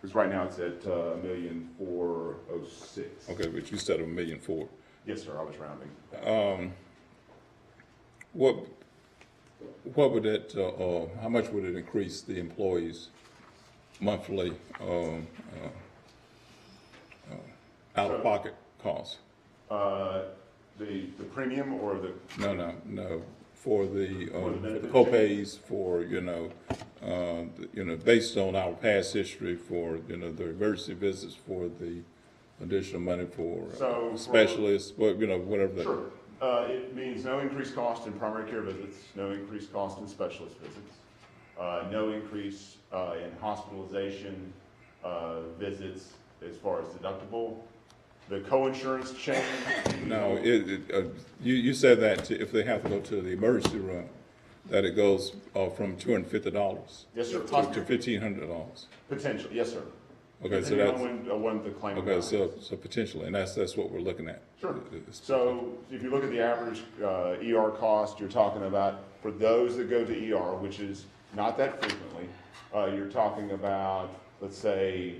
Because right now it's at uh, a million four oh six. Okay, but you said a million four. Yes, sir, I was rounding. What, what would that, uh, uh, how much would it increase the employees monthly, um, uh, uh, out-of-pocket costs? Uh, The, the premium or the, No, no, no, for the, For the um, for the benefit co-pays, for, you know, uh, the- you know, based on our past history for, you know, the emergency visits, for the additional money for uh, So, for- specialists, but, you know, whatever that. sure. Uh, It means no increased cost in primary care visits, no increased cost in specialist visits, uh, no increase uh, in hospitalization uh, visits as far as deductible. The co-insurance change. No, it, it, uh, you, you said that to- if they have to go to the emergency room, that it goes, uh, from two hundred and fifty dollars Yes, sir. to fifteen hundred dollars. Potential, yes, sir. Okay, so Depending on that's, when- uh, when the claim. okay, arrives. so, so potentially, and that's, that's what we're looking at. Sure. It's- So if you look at the average uh, ER cost, you're talking about, for those that go to ER, which is not that frequently, uh, you're talking about, let's say,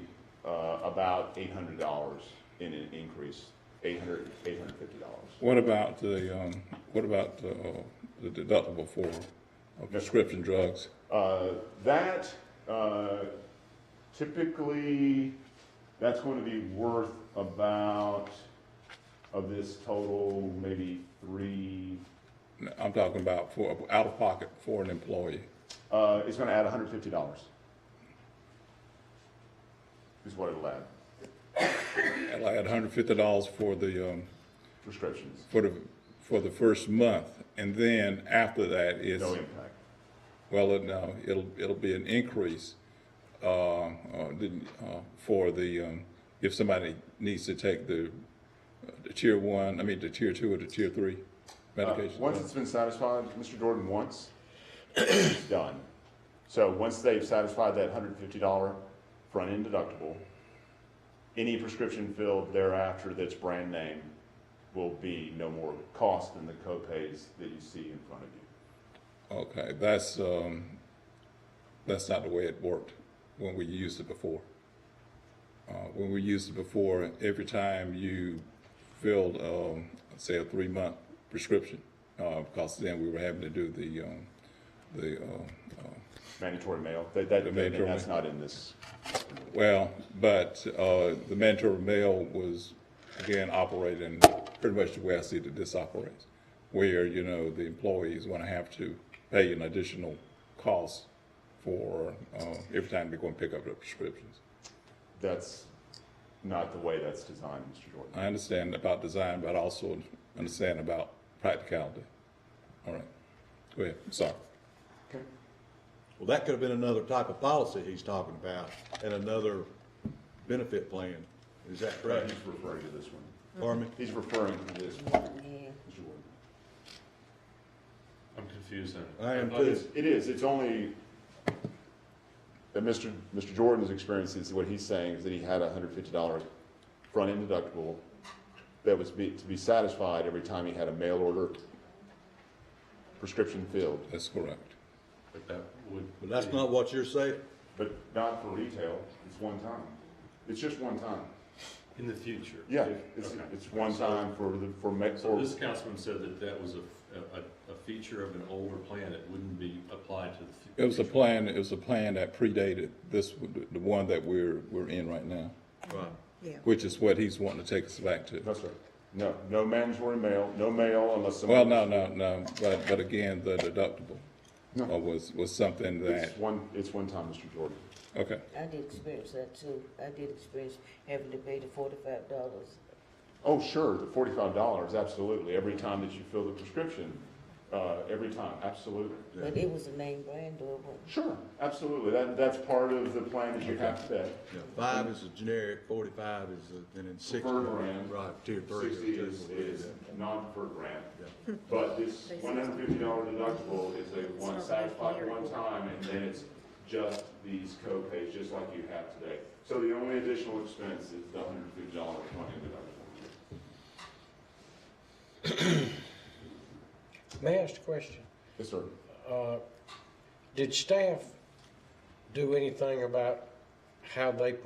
uh, about $800 in an increase, $800, $850. What about the, um, what about, uh, the deductible for uh, prescription drugs? Uh, That uh, typically, that's going to be worth about, of this total, maybe three, I'm talking about for, out of pocket for an employee. Uh, it's gonna add hundred fifty dollars. Is what it'll add, And I had hundred fifty dollars for the, um, prescriptions, for the, for the first month, and then after that is. no impact. Well, it- no, it'll, it'll be an increase, uh, uh, the- uh, for the, um, if somebody needs to take the, uh, the tier one, I mean, the tier two or the tier three Uh, medication. Once it's been satisfied, Mr. Jordan, once, it's done. So once they've satisfied that hundred fifty dollar front-end deductible, any prescription filled thereafter that's brand name will be no more cost than the co-pays that you see in front of you. Okay, that's, um, that's not the way it worked when we used it before. Uh, when we used it before, every time you filled, um, say a three-month prescription, uh, because then we were having to do the, um, the, uh, uh, Mandatory mail, that, that, The mandatory that's not in this, Well, but uh, the mandatory mail was, again, operating pretty much the way I see that this operates, where, you know, the employees want to have to pay an additional cost for uh, every time they go and pick up their prescriptions. that's not the way that's designed, Mr. Jordan. I understand about design, but I also understand about practicality. All right, go ahead, sorry. Okay. Well, that could have been another type of policy he's talking about and another benefit plan. Is that Right, correct? he's referring to this one. Pardon me? He's referring to this one. Sure. I'm confused now. I am thought too. it's- It is, it's only, that Mr. Mr. Jordan's experience is, what he's saying is that he had a hundred fifty dollar front-end deductible that was be, to be satisfied every time he had a mail order prescription filled, That's correct. But that would. But that's not what you're saying. but not for retail, it's one time. It's just one time. In the future. Yeah, If- it's, okay. it's one time for the, for ma- So for, this councilman said that that was a, a, a feature of an older plan that wouldn't be applied to the. fu- It was a plan, it was a plan that predated this, the one that we're, we're in right now. Right. Yeah. Which is what he's wanting to take us back to. no, sir, no, no mandatory mail, no mail unless someone. Well, no, no, no, but, but again, the deductible No. uh, was, was something that, It's one, it's one time, Mr. Jordan. okay, I did experience that too. I did experience having to pay the forty-five dollars. Oh, sure, the forty-five dollars, absolutely, every time that you fill the prescription, uh, every time, absolutely. But it was a name brand or what? Sure, absolutely, that, that's part of the plan that you have to pay. Yeah, Five is a generic, forty-five is, a- and then sixty. Preferred brand. Right, tier three. or Sixty tier is, four, is yeah. non-preferred grant, but this one hundred fifty dollar deductible is a one satisfied one time, and then it's just these co-pays, just like you have today. So the only additional expense is the hundred fifty dollar one-time deductible. May I ask a question? Yes, sir. Uh, Did staff do anything about how they